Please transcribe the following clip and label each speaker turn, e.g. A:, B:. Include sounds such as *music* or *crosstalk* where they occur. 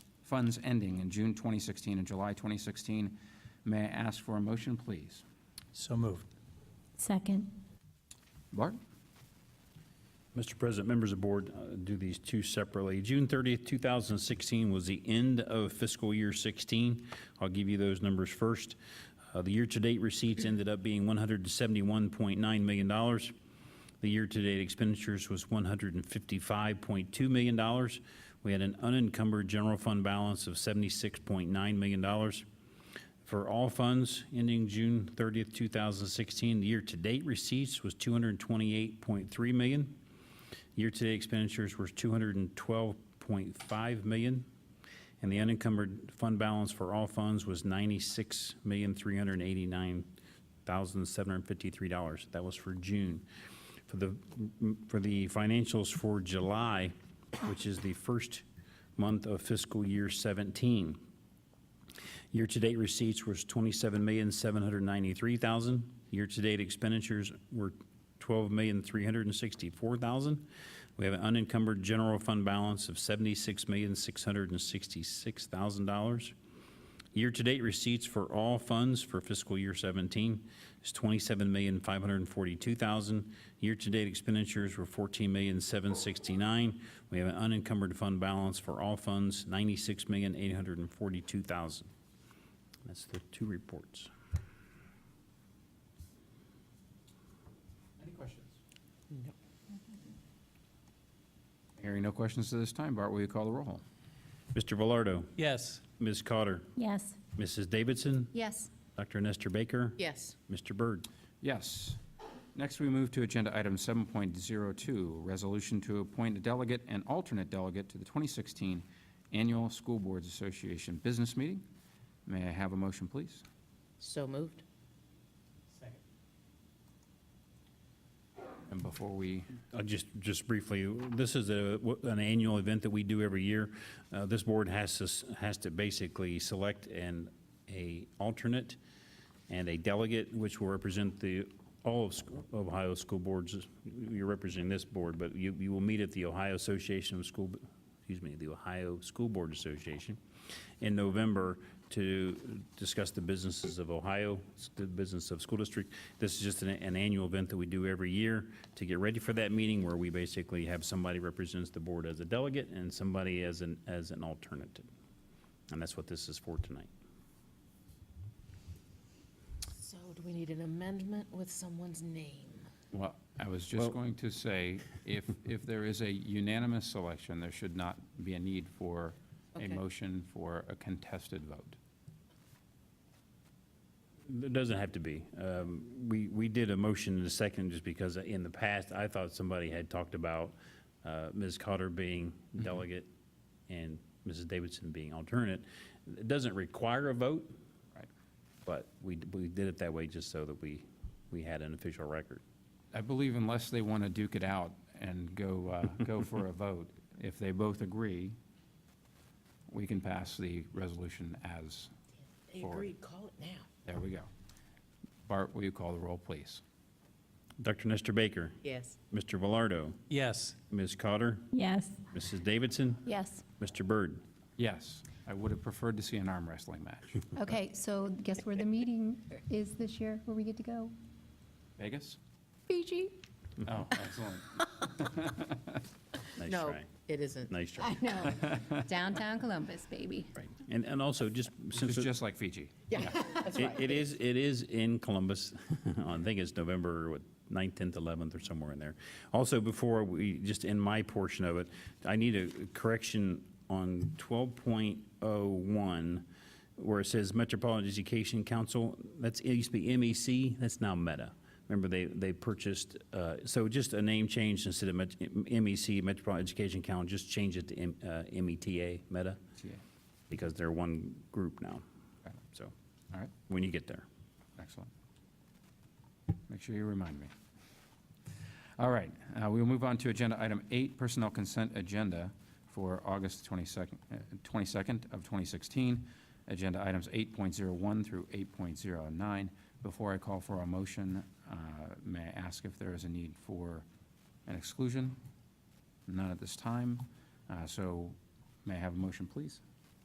A: funds ending in June 2016 and July 2016. May I ask for a motion, please?
B: So moved.
C: Second.
A: Bart?
D: Mr. President, members of the board, uh, do these two separately. June 30th, 2016 was the end of fiscal year 16. I'll give you those numbers first. Uh, The year-to-date receipts ended up being $171.9 million. The year-to-date expenditures was $155.2 million. We had an unencumbered general fund balance of $76.9 million. For all funds ending June 30th, 2016, the year-to-date receipts was 228.3 million. Year-to-date expenditures were 212.5 million, and the unencumbered fund balance for all funds was $96,389,753. That was for June. For the, for the financials for July, which is the first month of fiscal year 17, Year-to-date receipts was twenty-seven million, seven hundred ninety-three thousand. Year-to-date expenditures were twelve million, three hundred and sixty-four thousand. We have an unencumbered general fund balance of seventy-six million, six hundred and sixty-six thousand dollars. Year-to-date receipts for all funds for fiscal year 17 is 27542000 Year-to-date expenditures were 14769 We have an unencumbered fund balance for all funds, 96842000 That's the two reports.
A: Any questions? No. Hearing no questions at this time, Bart, will you call the roll?
D: Mr. Velardo,
B: Yes.
D: Ms. Cotter,
C: Yes.
D: Mrs. Davidson,
C: Yes.
D: Dr. Nestor Baker,
E: Yes.
D: Mr. Byrd.
A: Yes. Next, we move to Agenda Item 7.02, Resolution to appoint a delegate and alternate delegate to the 2016 Annual School Boards Association Business Meeting. May I have a motion, please?
E: So moved.
A: And before we,
D: Uh, Just, just briefly, this is a, an annual event that we do every year. Uh, This board has to, s- has to basically select an, a alternate and a delegate, which will represent the, all of sc- of Ohio school boards. You're representing this board, but you, you will meet at the Ohio Association of School, excuse me, the Ohio School Board Association in November to discuss the businesses of Ohio, the business of school district. This is just an, an annual event that we do every year to get ready for that meeting where we basically have somebody represents the board as a delegate and somebody as an, as an alternative. And that's what this is for tonight.
E: So do we need an amendment with someone's name?
A: well, I was just going to say, *laughs* if, if there is a unanimous selection, there should not be a need for a
E: Okay.
A: motion for a contested vote.
D: It doesn't have to be. Um, We, we did a motion in a second just because in the past, I thought somebody had talked about uh, Ms. Cotter being delegate and Mrs. Davidson being alternate. It doesn't require a vote.
A: Right.
D: But we, we did it that way just so that we, we had an official record.
A: I believe unless they want to duke it out and go, uh, go for *laughs* a vote, if they both agree, we can pass the resolution as,
E: They
A: Forward.
E: agreed, call it now.
A: there we go. Bart, will you call the roll, please?
D: Dr. Nestor Baker,
E: Yes.
D: Mr. Velardo,
B: Yes.
D: Ms. Cotter,
C: Yes.
D: Mrs. Davidson,
C: Yes.
D: Mr. Byrd.
A: Yes, I would have preferred to see an arm wrestling *laughs* match.
F: Okay, so guess where the meeting is this year, where we get to go?
A: *laughs* Vegas?
F: Fiji?
A: Oh, excellent.
D: Nice
E: No,
D: try.
E: it isn't.
D: Nice try.
F: I know, downtown Columbus, baby.
D: Right. And, and also just since.
A: It's just like Fiji.
E: Yeah, that's
D: It-
E: right.
D: It is, it is in Columbus. *laughs* I think it's November what, 9th, 10th, 11th, or somewhere in there. Also, before we, just in my portion of it, I need a correction on 12.01, where it says Metropolitan Education Council. That's, it used to be MEC, that's now Meta. Remember, they, they purchased, uh, so just a name change instead of Met- MEC, Metropolitan Education Council, just change it to M- uh, META, Meta,
A: Yeah.
D: because they're one group now.
A: Got it.
D: So,
A: All right,
D: when you get there.
A: excellent. Make sure you remind me. All right, uh, we will move on to Agenda Item 8, Personnel Consent Agenda for August 22nd uh, 22nd of 2016. Agenda Items 8.01 through 8.09. Before I call for a motion, uh, may I ask if there is a need for an exclusion? None at this time, Uh, so may I have a motion, please?